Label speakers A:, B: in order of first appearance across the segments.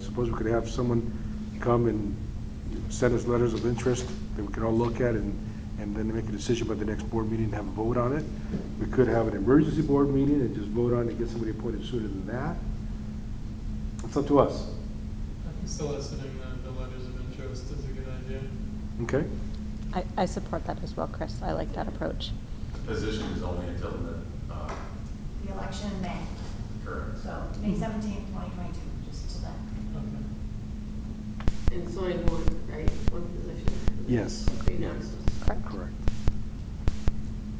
A: suppose we could have someone come and send us letters of interest that we could all look at and, and then make a decision by the next board meeting and have a vote on it. We could have an emergency board meeting and just vote on it, get somebody appointed sooner than that. It's up to us,
B: Soliciting the, the letters of interest is a good idea.
A: okay?
C: I, I support that as well, Chris. I like that approach.
D: The position is only until the, uh,
E: The election in May,
D: current.
E: so May seventeenth, twenty twenty-two, just till then.
B: Okay.
F: And it's only one, right, one position?
A: Yes.
F: Okay, now it's
C: Correct.
A: Correct.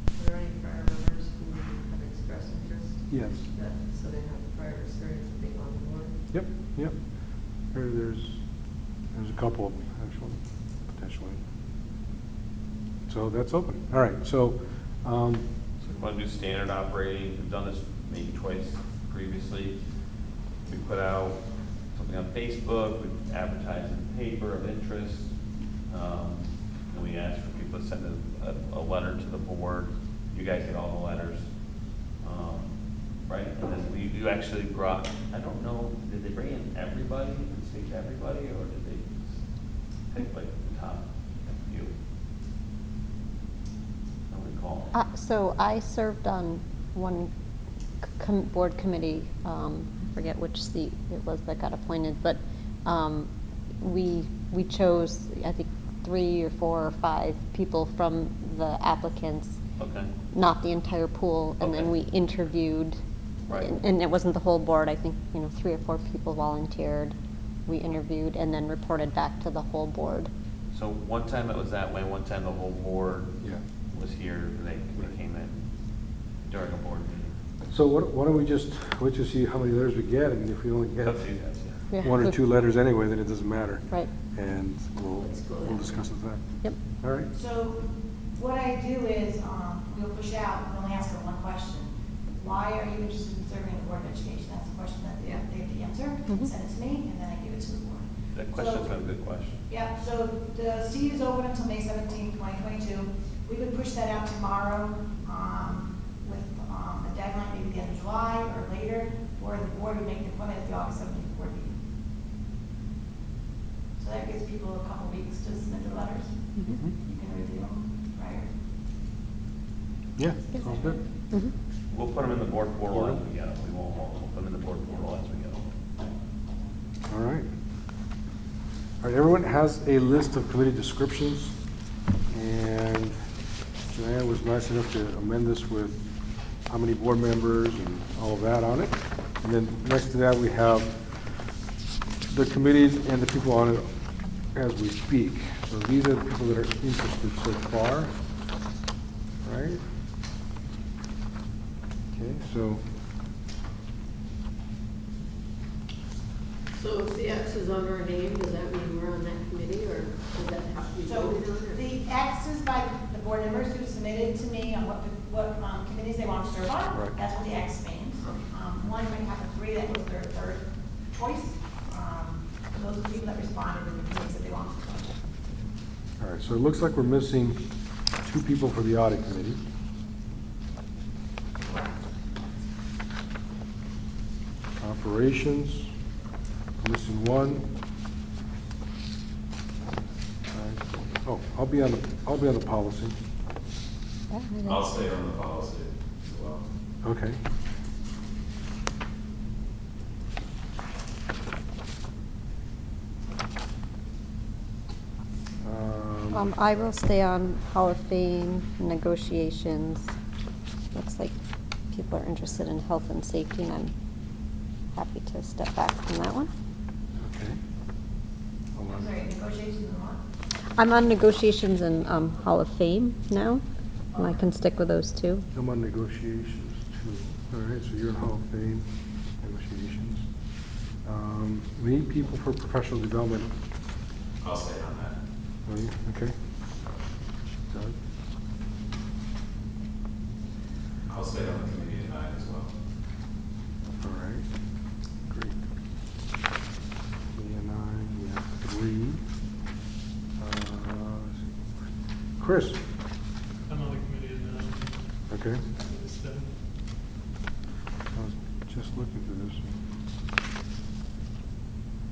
G: Are there any prior members who have expressed interest?
A: Yes.
G: That, so they have prior experience of being on the board?
A: Yep, yep. There- There's, there's a couple of them, actually, potentially. So that's open. All right, so, um,
H: So we want to do standard operating, we've done this maybe twice previously. We put out something on Facebook, we advertise in the paper of interest. um, And we ask for people to send a, a, a letter to the board. You guys get all the letters. um, Right, and then we, you actually brought, I don't know, did they bring in everybody, did they take everybody, or did they pick like the top few? I don't recall.
C: Uh, So I served on one c- com- board committee, um, I forget which seat it was that got appointed, but um, we, we chose, I think, three or four or five people from the applicants,
H: Okay,
C: not the entire pool, and then
H: Okay.
C: we interviewed.
H: Right.
C: and- And it wasn't the whole board, I think, you know, three or four people volunteered. We interviewed and then reported back to the whole board.
H: so one time it was that way, one time the whole board
A: yeah.
H: was here, and they, they came in during a board meeting.
A: So why don't- why don't we just, let's just see how many letters we get, I mean, if we only get
H: Up to you guys, yeah.
C: Yeah.
A: one or two letters anyway, then it doesn't matter.
C: Right,
A: And we'll, we'll discuss it then.
C: yep.
A: All right?
E: So what I do is, um, we'll push out, we only ask for one question. Why are you interested in serving the Board of Education? That's the question that they have to answer,
C: Mhm.
E: send it to me, and then I give it to the board.
H: That
E: So-
H: question's not a good question.
E: Yeah, so the seat is open until May seventeenth, twenty twenty-two. We could push that out tomorrow, um, with, um, a deadline maybe the end of July or later, or the board would make the appointment at the August seventeenth board meeting. So that gives people a couple weeks to submit their letters.
C: Mm-hmm.
A: Mhm.
E: You can review them prior.
A: Yeah, sounds good.
C: Mhm.
H: We'll put them in the board portal as we get them, we won't hold them, we'll put them in the board portal as we get them.
A: All right. All right, everyone has a list of committee descriptions, and Joanne was nice enough to amend this with how many board members and all of that on it. And then next to that, we have the committees and the people on it as we speak. So these are the people that are interested so far, right? Okay, so,
F: So if the X is on our name, does that mean we're on that committee, or does that have to be
E: So
F: voted on? or-
E: the X is by the board members who submitted to me on what, the- what um, committees they want to serve on.
A: Right.
E: That's what the X means. Um, One might have a three, that was their third choice. Um, Those are the people that responded with the committees that they want to serve on.
A: all right, so it looks like we're missing two people for the audit committee. Operations, missing one. All right. Oh, I'll be on, the I'll be on the policy.
C: Yeah, I think-
D: I'll stay on the policy as well.
A: Okay. Um,
C: Um, I will stay on Hall of Fame negotiations. Looks like people are interested in health and safety, and I'm happy to step back from that one.
A: Okay. Hold
E: I'm
A: on.
E: sorry, negotiations and what?
C: I'm on negotiations and, um, Hall of Fame now, and I can stick with those two.
A: I'm on negotiations too. All right, so you're in Hall of Fame, negotiations. Um, We need people for professional development.
D: I'll stay on that.
A: Are you, okay? Doug?
D: I'll stay on the committee at night as well.
A: All right, great. And I, we have three. Uh, let's see. Chris,
B: I'm on the committee now.
A: okay,
B: Just, uh,
A: I was just looking through this. one.